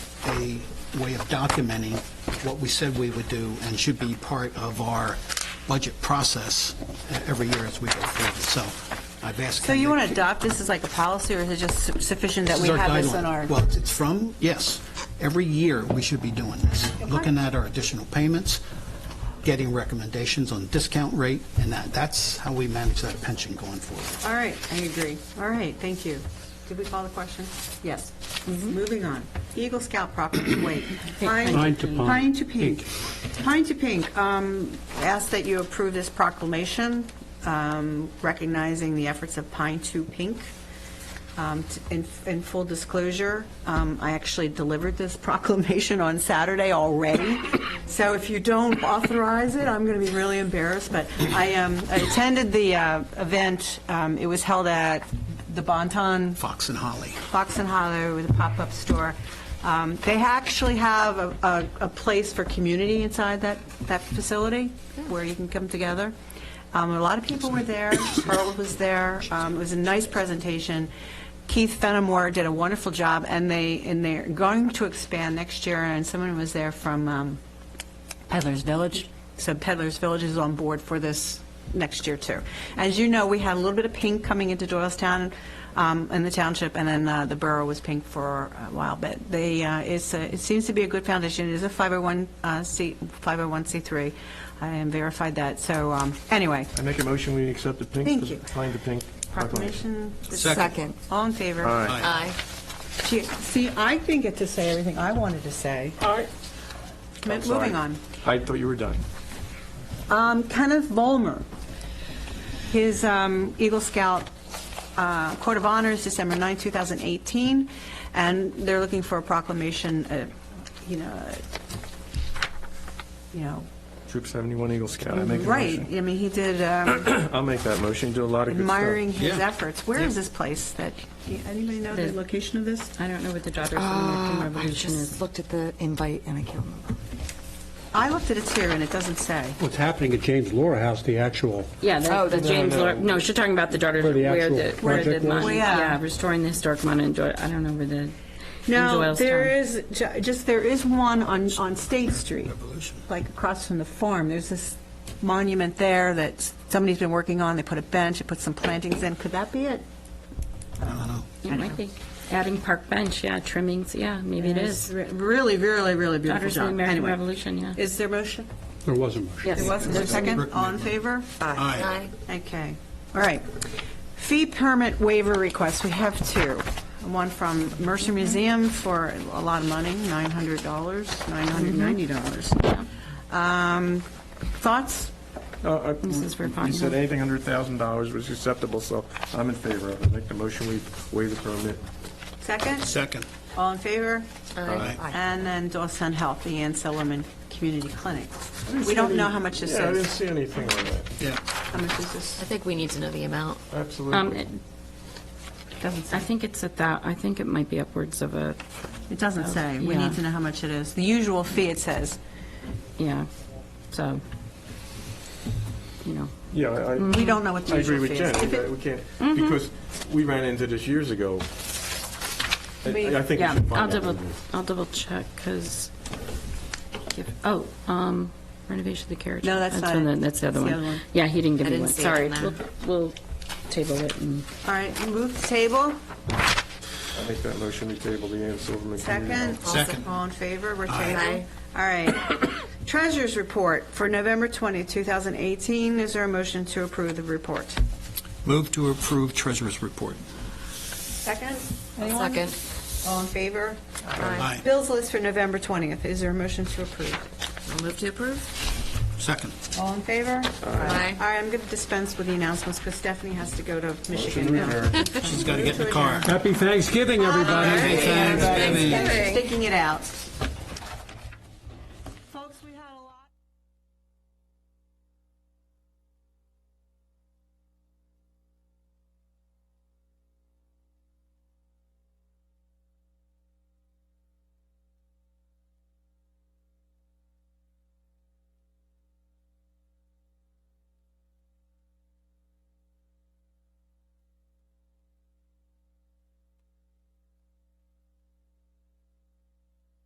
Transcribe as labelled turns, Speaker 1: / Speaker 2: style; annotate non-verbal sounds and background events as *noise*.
Speaker 1: a way of documenting what we said we would do and should be part of our budget process uh, every year as we go forward. So I've asked.
Speaker 2: So you
Speaker 1: Henry
Speaker 2: want to adopt this as like a policy, or is it just su- sufficient that
Speaker 1: This
Speaker 2: we
Speaker 1: is our
Speaker 2: have this
Speaker 1: guideline.
Speaker 2: on our?
Speaker 1: Well, it's from, yes, every year, we should be doing this, looking at our additional payments, getting recommendations on discount rate, and that, that's how we manage that pension going forward.
Speaker 2: All right, I agree. All right, thank you. Did we call the question? Yes.
Speaker 3: Mm-hmm.
Speaker 2: Moving on. Eagle Scout property, *coughs* wait.
Speaker 3: Pine to pine.
Speaker 2: Pine to pink. Pine to pink. Um, Ask that you approve this proclamation um, recognizing the efforts of Pine to Pink. Um, t- In in full disclosure, um, I actually delivered this *laughs* proclamation on Saturday already, so if you don't authorize it, I'm going to be really embarrassed, but I um, I attended the uh, event, Um, it was held at the Bonton
Speaker 1: Fox and Holly.
Speaker 2: Fox and Hollow with a pop-up store. Um, They actually have a- a, a place for community inside that, that facility where you can come together. Um, A lot of people were there, Pearl was there, Um, it was a nice presentation. Keith Fenimore did a wonderful job, and they, and they're going to expand next year, and someone was there from um, Peddler's Village. So Peddler's Village is on board for this next year, too. As you know, we had a little bit of pink coming into Doylestown um, in the township, and then uh, the borough was pink for a while, but they, uh, it's, a- it seems to be a good foundation. It is a 501, uh, C 501c3. I am verified that, so um, anyway.
Speaker 3: I make a motion, we accept the pink.
Speaker 2: Thank you.
Speaker 3: Find the pink.
Speaker 2: Proclamation.
Speaker 4: Second.
Speaker 2: All in favor?
Speaker 3: Aye.
Speaker 4: Aye.
Speaker 2: Gee, See, I didn't get to say everything I wanted to say.
Speaker 3: All right.
Speaker 2: M- Moving on.
Speaker 3: I thought you were done.
Speaker 2: Um, Kenneth Volmer, his um, Eagle Scout uh, Court of Honors, December 9, 2018, and they're looking for a proclamation, uh, you know, uh, you know,
Speaker 3: Troop 71 Eagle Scout, I make a
Speaker 2: right,
Speaker 3: motion.
Speaker 2: I mean, he did um,
Speaker 3: I'll make that motion, you do a lot of good stuff.
Speaker 2: admiring his
Speaker 1: Yeah.
Speaker 2: efforts. Where is this place that, anybody know the
Speaker 5: There's-
Speaker 2: location of this?
Speaker 5: I don't know what the Daughters of
Speaker 2: Ah,
Speaker 5: American
Speaker 4: I
Speaker 5: Revolution
Speaker 4: just
Speaker 5: is.
Speaker 4: looked at the invite and I can't remember.
Speaker 2: I looked at it here, and it doesn't say.
Speaker 6: What's happening at James Laura House, the actual,
Speaker 5: Yeah,
Speaker 4: Oh,
Speaker 5: the
Speaker 4: that's-
Speaker 5: James, Lor- no, she's talking about the Daughters,
Speaker 6: Where
Speaker 5: of
Speaker 6: the
Speaker 5: where
Speaker 6: actual
Speaker 5: the, where the
Speaker 6: project was?
Speaker 5: monument,
Speaker 2: Yeah.
Speaker 5: yeah, restoring the historic monument, in Doy- I don't know where the, in
Speaker 2: No,
Speaker 5: Doylestown.
Speaker 2: there is, ju- just, there is one on, on State Street, like across from the farm. There's this monument there that s- somebody's been working on. They put a bench, they put some plantings in. Could that be it?
Speaker 5: It might be. Adding Park Bench, yeah, trimmings, yeah, maybe it is.
Speaker 2: Re- Really, really, really beautiful
Speaker 5: Daughters of the
Speaker 2: job.
Speaker 5: American
Speaker 2: Anyway,
Speaker 5: Revolution, yeah.
Speaker 2: is there motion?
Speaker 6: there was a motion.
Speaker 5: Yes.
Speaker 2: There was, is there a second? All in favor?
Speaker 1: Aye.
Speaker 2: Okay, all right. Fee permit waiver requests, we have two. One from Mercer Museum for a lot of money, $900, $990. Um, Thoughts?
Speaker 3: Uh, I-
Speaker 5: Mrs. Verpagna.
Speaker 3: You said anything under $1,000 was acceptable, so I'm in favor of it. Make the motion, we waive the permit.
Speaker 2: Second?
Speaker 1: Second.
Speaker 2: All in favor?
Speaker 4: Aye.
Speaker 2: And then Doylestown Health, the Ann Silliman Community Clinic. We don't know how much this
Speaker 3: Yeah, I didn't
Speaker 2: is.
Speaker 3: see anything on that,
Speaker 1: Yeah.
Speaker 2: How much is this?
Speaker 4: I think we need to know the amount.
Speaker 5: Um,
Speaker 3: absolutely.
Speaker 5: it-
Speaker 2: Doesn't
Speaker 5: I
Speaker 2: say.
Speaker 5: think it's at that, I think it might be upwards of a,
Speaker 2: It doesn't say. We
Speaker 5: Yeah.
Speaker 2: need to know how much it is. The usual fee, it says.
Speaker 5: yeah, so, you know.
Speaker 3: Yeah, I-
Speaker 5: Mm-hmm.
Speaker 3: I.
Speaker 2: We don't know what the
Speaker 3: I agree
Speaker 2: usual
Speaker 3: with
Speaker 2: fee
Speaker 3: Jen,
Speaker 2: is. If it-
Speaker 3: that we can't, because we ran into this years ago. I- I think we
Speaker 5: Yeah,
Speaker 3: should find
Speaker 5: I'll
Speaker 3: out.
Speaker 5: double, I'll double check, because, oh, um, renovation of the carriage.
Speaker 2: No, that's not
Speaker 5: one
Speaker 2: it.
Speaker 5: that- That's the other
Speaker 2: That's the
Speaker 5: one.
Speaker 2: other one.
Speaker 5: Yeah, he didn't give
Speaker 4: I
Speaker 5: me
Speaker 4: didn't
Speaker 5: one,
Speaker 4: see it
Speaker 5: sorry.
Speaker 4: on
Speaker 5: We'll
Speaker 4: that.
Speaker 5: we'll table it and.
Speaker 2: All right, move the table.
Speaker 3: I make that motion, we table the Ann Silverman Community
Speaker 2: Second?
Speaker 3: Hall.
Speaker 1: Second.
Speaker 2: All in favor, we're tabled.
Speaker 4: Aye.
Speaker 2: All right. *coughs* Treasurers' report for November 20, 2018. Is there a motion to approve the report?
Speaker 1: Move to approve treasurer's report.
Speaker 2: Second? Anyone?
Speaker 4: Second.
Speaker 2: All in favor?
Speaker 4: Aye.
Speaker 1: Aye.
Speaker 2: Bills list for November 20th. Is there a motion to approve?
Speaker 4: I'll move to approve.
Speaker 1: Second.
Speaker 2: All in favor?
Speaker 4: Aye.
Speaker 2: All right, I'm going to dispense with the announcements because Stephanie has to go to Michigan
Speaker 3: Second.
Speaker 2: now.
Speaker 1: She's got to get in the car.
Speaker 6: Happy Thanksgiving, everybody.
Speaker 1: Thanksgiving.
Speaker 2: Sticking it out.